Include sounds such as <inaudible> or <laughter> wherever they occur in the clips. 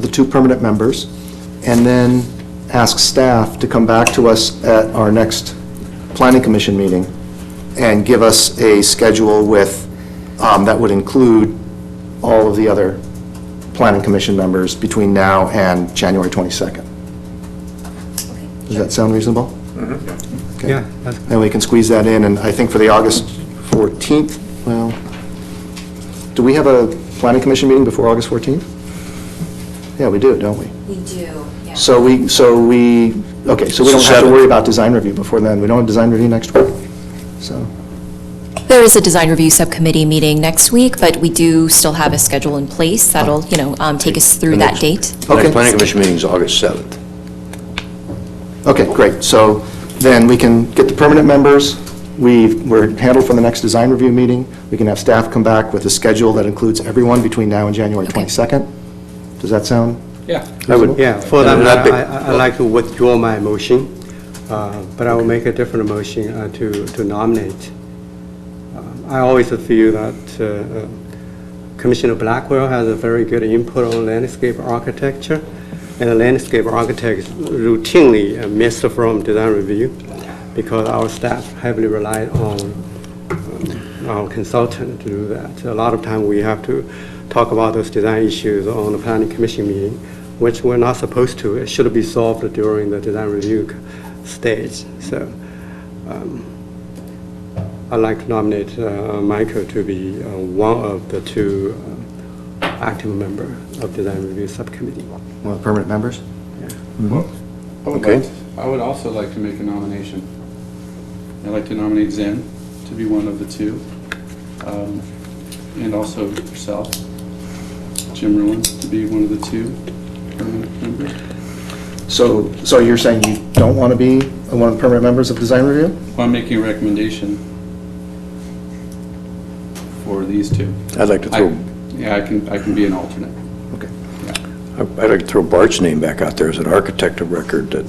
two permanent members, and then ask staff to come back to us at our next planning commission meeting and give us a schedule with, um, that would include all of the other planning commission members between now and January 22nd. Does that sound reasonable? Okay. Yeah, that- And we can squeeze that in, and I think for the August 14th, well, do we have a planning commission meeting before August 14th? Yeah, we do, don't we? We do, yeah. So we, so we, okay, so we don't have to Seven. worry about design review before then. We don't have design review next week, so. There is a design review subcommittee meeting next week, but we do still have a schedule in place that'll, you know, um, take us through that date. Okay. Next planning commission meeting is August 7th. Okay, great. So then we can get the permanent members, we, we're handled for the next design review meeting, we can have staff come back with a schedule that includes everyone between now and January Okay. 22nd. Does that sound? Yeah. I would- yeah, for And that, that I- big- I- I'd like to withdraw my motion, uh, but I will make a different motion uh, to to nominate. Um, I always feel that uh, uh, Commissioner Blackwell has a very good input on landscape architecture, and the landscape architects routinely uh, miss from design review because our staff heavily rely on our consultant to do that. A lot of time, we have to talk about those design issues on the planning commission meeting, which we're not supposed to. It should be solved during the design review c- stage. So um, I'd like to nominate uh, Michael to be uh, one of the two uh, active member of design review subcommittee. Well, permanent members? I would Okay. like, I would also like to make a nomination. I'd like to nominate Zen to be one of the two, um, and also yourself, Jim Ruin, to be one of the two permanent members. So, so you're saying you don't want to be one of the permanent members of design review? Well, I'm making a recommendation for these two. I'd like to I- throw, Yeah, I can, I can be an alternate. Okay. I'd like to throw Bart's name back out there as an architect of record that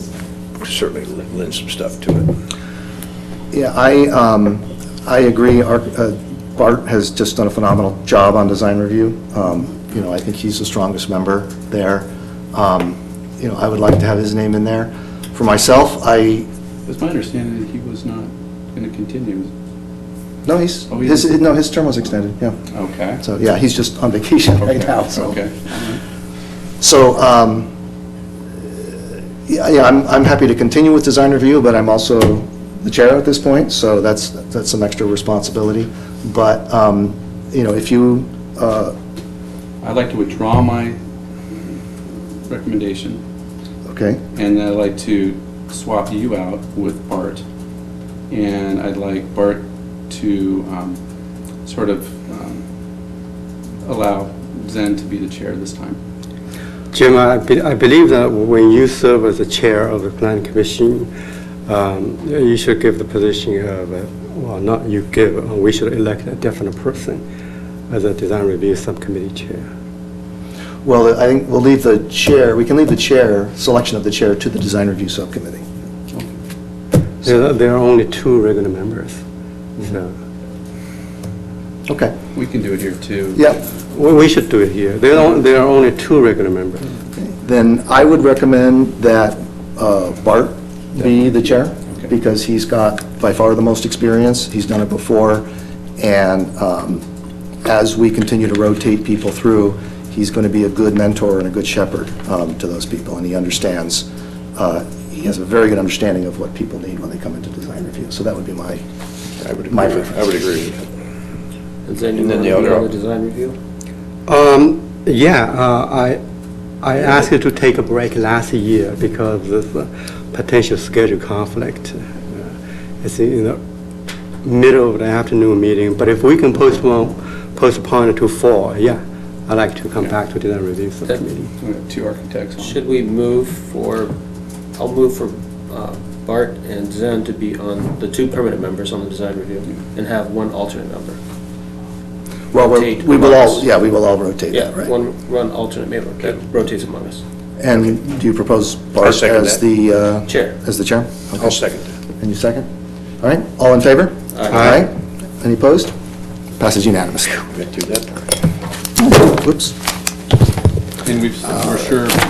certainly lends some stuff to it. Yeah, I, um, I agree. Our- uh, Bart has just done a phenomenal job on design review. Um, You know, I think he's the strongest member there. Um, You know, I would like to have his name in there. For myself, I, It's my understanding that he was not going to continue. no, he's, Oh, he his, is? no, his term was extended, yeah. Okay. So, yeah, he's just on vacation <laughs> right Okay, now, so. Okay. So, um, yeah, yeah, I'm, I'm happy to continue with design review, but I'm also the chair at this point, so that's, that's some extra responsibility. But, um, you know, if you, uh, I'd like to withdraw my recommendation okay, And I'd like to swap you out with Bart. And I'd like Bart to um, sort of um, allow Zen to be the chair this time. Jim, I be- I believe that when you serve as the chair of the planning commission, um, you should give the position of, uh, well, not you give, uh, we should elect a different person as a design review subcommittee chair. well, I think we'll leave the chair, we can leave the chair, selection of the chair to the design review subcommittee. There are- there are only two regular members, so Okay, We can do it here, too. yeah. we we should do it here. There are there are only two regular members. Then I would recommend that uh, Bart be the chair, Okay. because he's got by far the most experience, he's done it before, and um, as we continue to rotate people through, he's going to be a good mentor and a good shepherd um, to those people, and he understands, uh, he has a very good understanding of what people need when they come into design review, so that would be my, I would agree My with, I would agree with that. And then you And then want the to be other- on the design review? Um, Yeah, uh, I, I asked you to take a break last year because of this uh, potential schedule conflict. Uh, It's in the middle of the afternoon meeting, but if we can postpone, postpone it to fall, yeah, I'd like to come back to design review subcommittee. We have Two architects on. Should we move for, I'll move for uh, Bart and Zen to be on, the two permanent members on the design review, and have one alternate member. well, we're- Rotate we will all, amongst- yeah, we will all rotate Yeah, that, right? one, one alternate member that rotates among us. And do you propose I'll Bart second as that. the... uh, Chair. As the chair? Okay. I'll second that. And you second? All right, all in favor? Aye. Aye. Any opposed? Passes unanimously. Been through that part. Whoops. And we've, we're sure